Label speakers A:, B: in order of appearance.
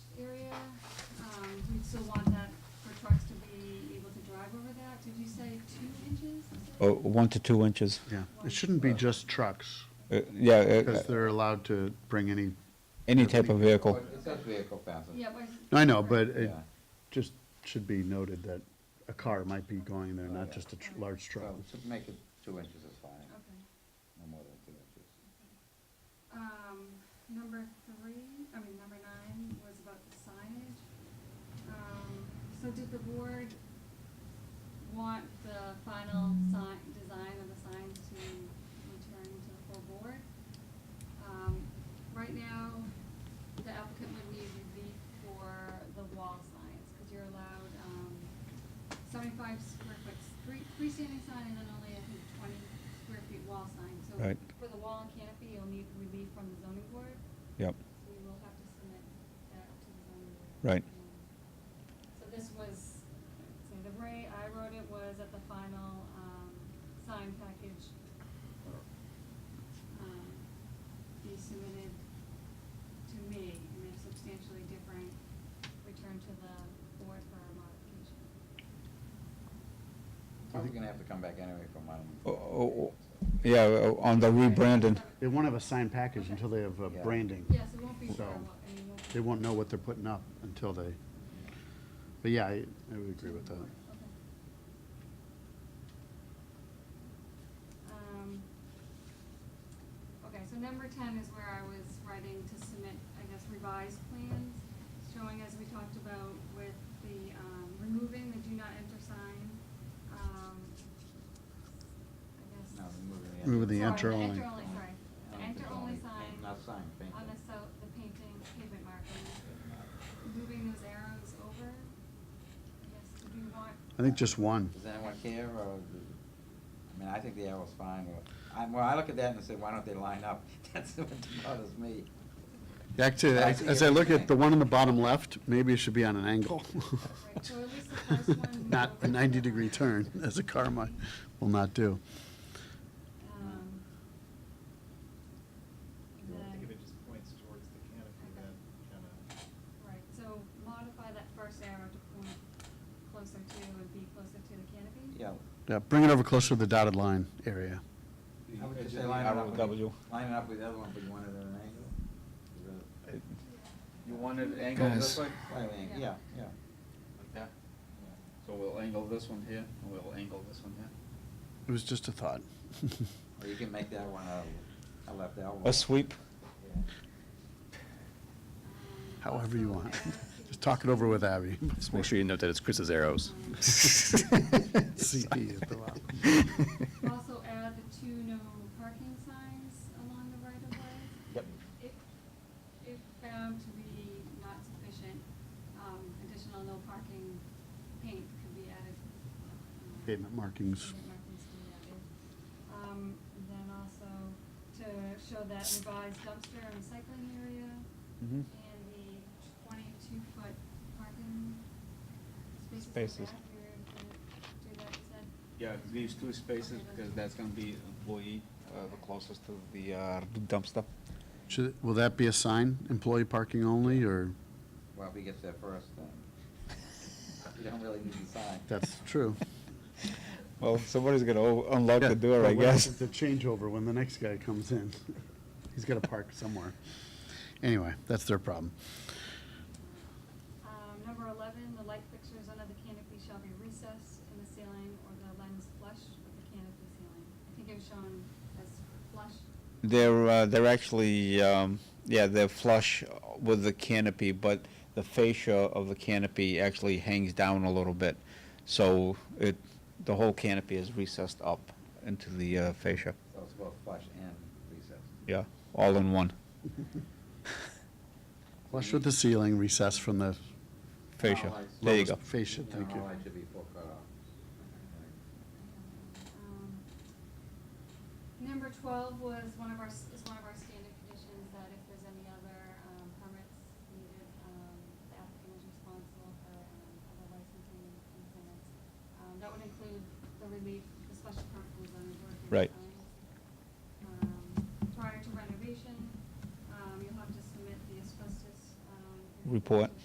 A: Um,
B: or Uh,
C: Oh.
B: one to two inches.
C: Yeah, it shouldn't be just trucks,
B: Uh, Yeah, uh,
C: because they're allowed to bring any,
B: any type of vehicle.
D: It says vehicle passenger.
A: Yeah, but.
C: I know, but it
D: Yeah.
C: just should be noted that a car might be going there, not just a tr- large truck.
D: So to make it two inches is fine,
A: Okay.
D: no more than two inches.
A: Um, number three, I mean, number nine was about the signage. Um, so did the board want the final sign, design of the signs to return to the full board? Um, right now, the applicant would need relief for the wall signs, cause you're allowed, um, seventy-five square foot, three, freestanding sign and then only, I think, twenty square feet wall sign, so
B: Right.
A: for the wall and canopy, you'll need relief from the zoning board,
B: Yep,
A: so you will have to submit that to the zoning board.
B: Right.
A: So this was, so the way I wrote it was at the final, um, sign package, um, be submitted to me, and they're substantially different, return to the board for a modification.
D: Probably gonna have to come back anyway for one.
B: Oh, oh, oh, yeah, uh, on the rebranding,
C: They won't have a signed package until they have uh,
D: Yeah.
C: branding.
A: Yes, it won't be sure,
C: So,
A: what- and it won't be.
C: They won't know what they're putting up until they, but yeah, I I would agree with that.
A: Okay. Um, Okay, so number ten is where I was writing to submit, I guess, revised plans, showing as we talked about with the, um, removing the do not enter sign, um, I guess.
D: No, removing the.
C: Remove
D: entrance.
C: the enter
A: Sorry, the
C: only.
A: enter only, sorry, the
D: Um,
A: enter
D: it's
A: only
D: paint,
A: sign
D: Not sign, paint.
A: on the so, the painting pavement markings moving those arrows over? Yes, do you want,
C: I think just one.
D: Does anyone care, or, I mean, I think the arrow's fine, or, I, well, I look at that and say, why don't they line up? That's what bothers me.
C: Actually,
D: I
C: as
D: see
C: as I look at
D: everything.
C: the one on the bottom left, maybe it should be on an angle.
A: right, so at least the first one.
C: Not a
A: moved.
C: 90-degree turn, as a car might, will not do.
A: Um,
E: I think if
A: then-
E: it just points towards the canopy, that kind of.
A: Right, so modify that first arrow to point closer to and be closer to the canopy?
D: Yeah.
C: Yeah, bring it over closer to the dotted line area.
D: I would just say
B: the
D: line it up
B: arrow
D: with-
B: W.
D: Line it up with the other one, but you want it at an angle?
F: You want it angled
C: Guys.
F: this way?
D: Slightly angled, yeah,
A: Yeah.
D: yeah.
F: Like that? So we'll angle this one here, and we'll angle this one here.
C: It was just a thought.
D: Or you can make that one a, a left elbow.
B: a sweep.
D: Yeah.
A: Um,
C: However you
A: also
C: want.
A: arrows
C: Just talk it over with Abby.
G: Just make sure you note that it's Chris's arrows.
C: CP at
A: to-
C: the bottom.
A: Also add the two no parking signs along the right of way.
D: Yep.
A: If, if found to be not sufficient, um, additional no parking paint could be added. um,
C: Pavement markings.
A: Pavement markings could be added. Um, and then also to show that revised dumpster and recycling area
B: Mhm.
C: Mm-hmm.
A: and the twenty-two foot parking spaces in the
B: Spaces.
A: back, we were gonna do that, you said?
F: Yeah, leaves two spaces, because that's gonna be employee, uh, the closest to the uh, dumpster.
C: Should, will that be a sign, employee parking only, or?
D: Well, if he gets there first, then you don't really need the sign.
C: That's true.
B: Well, somebody's gonna o- unlock the
C: Yeah,
B: door,
C: but
B: I
C: what if
B: guess.
C: It's a changeover when the next guy comes in. He's got to park somewhere. Anyway, that's their problem.
A: Um, number eleven, the light fixtures under the canopy shall be recessed in the ceiling or the lens flush with the canopy ceiling. I think it was shown as flush.
B: They're, uh, they're actually, um, yeah, they're flush with the canopy, but the fascia of the canopy actually hangs down a little bit. So it, the whole canopy is recessed up into the uh, fascia,
D: So it's both flush and recessed.
B: yeah, all in one
C: Flush with the ceiling, recess from the
B: fascia.
D: Alright.
B: There you
C: lowest
B: go.
C: fascia,
D: No,
C: thank you.
D: all that should be full cut off.
A: Um, Number twelve was one of our, s- is one of our standard conditions that if there's any other, um, permits needed, um, the applicant is responsible for, um, other licensing and and permits. Um, that would include the relief, the special permit from the zoning board. for
B: Right.
A: signs. Um, prior to renovation, um, you'll have to submit the asbestos, um.
B: Report.